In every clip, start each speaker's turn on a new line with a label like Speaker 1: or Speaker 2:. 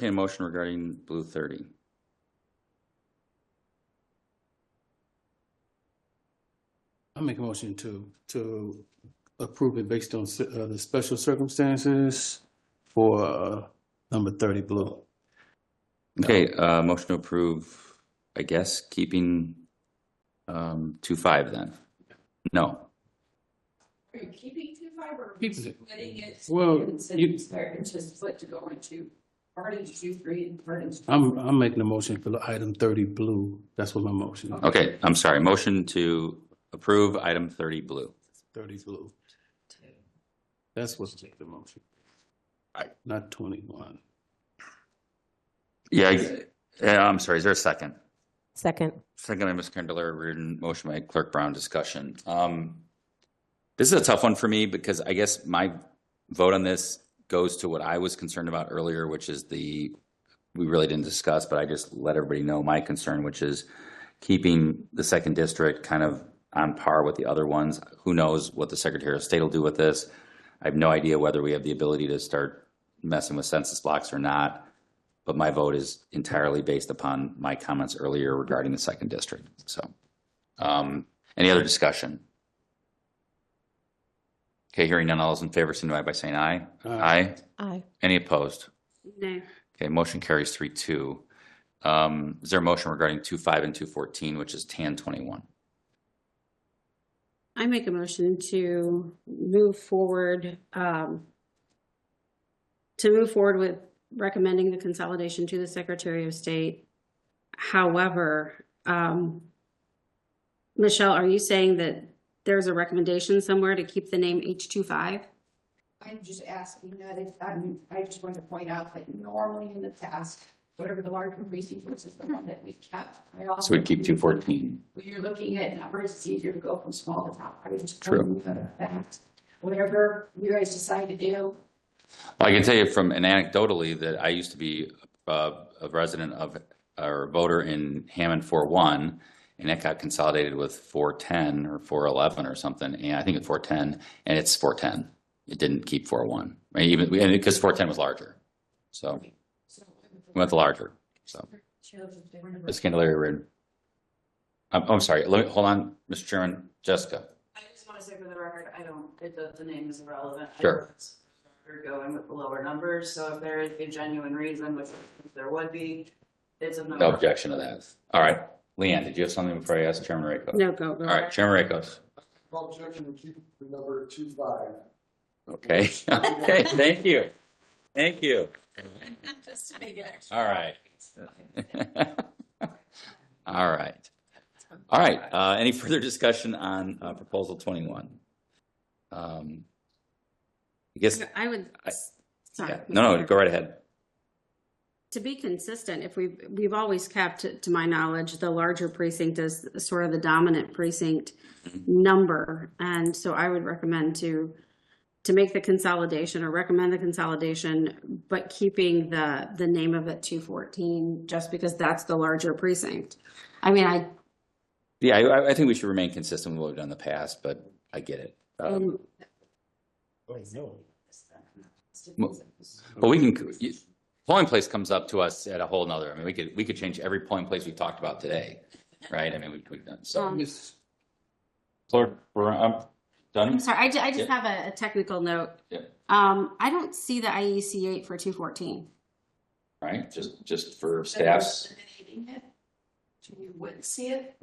Speaker 1: Entertain a motion regarding Blue 30.
Speaker 2: I make a motion to, to approve it based on ci- uh, the special circumstances for uh, number thirty blue.
Speaker 1: Okay, uh, motion to approve, I guess, keeping um, 2.5 then? No.
Speaker 3: Are you keeping two fiber?
Speaker 2: Keeping it.
Speaker 3: Splitting it?
Speaker 2: Well,
Speaker 3: And so
Speaker 2: you-
Speaker 3: you start and just split to go into part into two, three and part into.
Speaker 2: I'm, I'm making a motion for item thirty blue. That's what my motion. is.
Speaker 1: Okay, I'm sorry. Motion to approve item 30 blue.
Speaker 2: Thirty blue. That's what's the motion.
Speaker 1: Right.
Speaker 2: Not twenty-one.
Speaker 1: Yeah, I- yeah, uh, I'm sorry. Is there a second?
Speaker 4: Second.
Speaker 1: Second by Ms. Candelaria Reardon, motion by Clerk Brown, discussion. Um, This is a tough one for me because I guess my vote on this goes to what I was concerned about earlier, which is the, we really didn't discuss, but I just let everybody know my concern, which is keeping the second district kind of on par with the other ones. Who knows what the Secretary of State will do with this? I have no idea whether we have the ability to start messing with census blocks or not but my vote is entirely based upon my comments earlier regarding the second district, so. Um, any other discussion? Okay, hearing none, all those in favor signify by saying aye. Aye.
Speaker 4: Aye.
Speaker 1: Any opposed?
Speaker 3: No.
Speaker 1: Okay, motion carries three two. Um, is there a motion regarding two five and two fourteen, which is tan twenty-one?
Speaker 5: I make a motion to move forward, um, to move forward with recommending the consolidation to the Secretary of State. However, um, Michelle, are you saying that there's a recommendation somewhere to keep the name H 25
Speaker 3: I'm just asking that if, I'm, I just wanted to point out that normally in the past, whatever the larger precinct was is the one that we kept. I
Speaker 1: So
Speaker 3: also
Speaker 1: we keep two fourteen.
Speaker 3: When you're looking at numbers, it's easier to go from small to top. I was just
Speaker 1: True.
Speaker 3: telling you that fact. Whatever you guys decide to do,
Speaker 1: I can tell you from an anecdotally that I used to be uh, a resident of or a voter in Hammond 41, and it got consolidated with 410 or 411 or something, and I think it's 410, and it's 410. It didn't keep 401, right? even and because 410 was larger, so we
Speaker 3: so.
Speaker 1: went the larger. So Ms. Candelaria, Reardon. I'm, I'm sorry. Let me hold on, Mr. Chairman, Jessica.
Speaker 6: I just want to say for the record, I don't, it, the, the name is irrelevant. I
Speaker 1: Sure.
Speaker 6: don't- We're going with the lower numbers, so if there is a genuine reason, which there would be, it's a number.
Speaker 1: No objection to that. All right, Leanne, did you have something before I ask Chairman Rakos?
Speaker 5: No, go, go.
Speaker 1: All right, Chairman Rakos.
Speaker 7: Call objection to keep the number two five.
Speaker 1: Okay, okay, thank you. Thank you.
Speaker 3: Just to make it extra.
Speaker 1: All right. All right. All right, uh, any further discussion on, uh, proposal twenty-one? Um, I guess,
Speaker 5: I would,
Speaker 1: I-
Speaker 5: sorry.
Speaker 1: yeah, no, no, go right ahead.
Speaker 5: To be consistent, if we've, we've always kept, to my knowledge, the larger precinct as sort of the dominant precinct
Speaker 1: Mm-hmm.
Speaker 5: number. And so I would recommend to, to make the consolidation or recommend the consolidation, but keeping the, the name of it two fourteen, just because that's the larger precinct. I mean, I,
Speaker 1: Yeah, I, I- I think we should remain consistent with what we've done in the past, but I get it. Um, But we can, you- polling place comes up to us at a whole nother, I mean, we could, we could change every polling place we talked about today, right? I mean, we- we've done, so.
Speaker 5: Um,
Speaker 2: Miss-
Speaker 1: Clerk, we're, I'm done.
Speaker 5: I'm sorry, I, ju- I just
Speaker 1: Yeah.
Speaker 5: have a, a technical note.
Speaker 1: Yeah.
Speaker 5: Um, I don't see the IEC eight for two fourteen.
Speaker 1: right? Just, just for staffs.
Speaker 3: Eliminating it. So you wouldn't see it.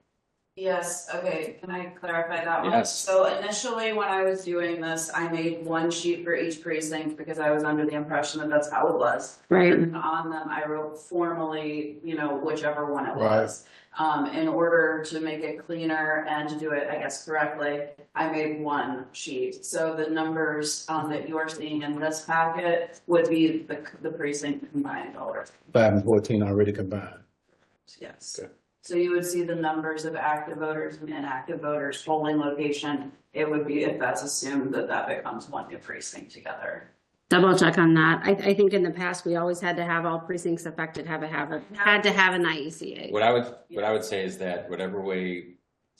Speaker 6: Yes, okay, can I clarify that one?
Speaker 1: Yes.
Speaker 6: So initially, when I was doing this, I made one sheet for each precinct because I was under the impression that that's how it was.
Speaker 5: Right.
Speaker 6: written on them, I wrote formally, you know, whichever one it was. Um, in order to make it cleaner and to do it, I guess, correctly, I made one sheet. So the numbers, um, that you're seeing in this packet would be the, the precinct combined order.
Speaker 2: Five and fourteen already combined.
Speaker 6: Yes. So you would see the numbers of active voters and inactive voters, polling location. It would be, if that's assumed, that that becomes one new precinct together.
Speaker 5: Double check on that. I, I think in the past, we always had to have all precincts affected have a, have a, had to have an E IECA.
Speaker 1: What I would, what I would say is that whatever way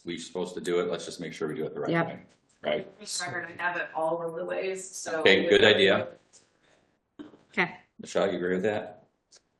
Speaker 1: we're supposed to do it, let's just make sure we do it the right
Speaker 5: Yep.
Speaker 1: way, right?
Speaker 6: For the record, I have it all of the ways, so.
Speaker 1: Okay, good idea.
Speaker 5: Okay.
Speaker 1: Michelle, you agree with that?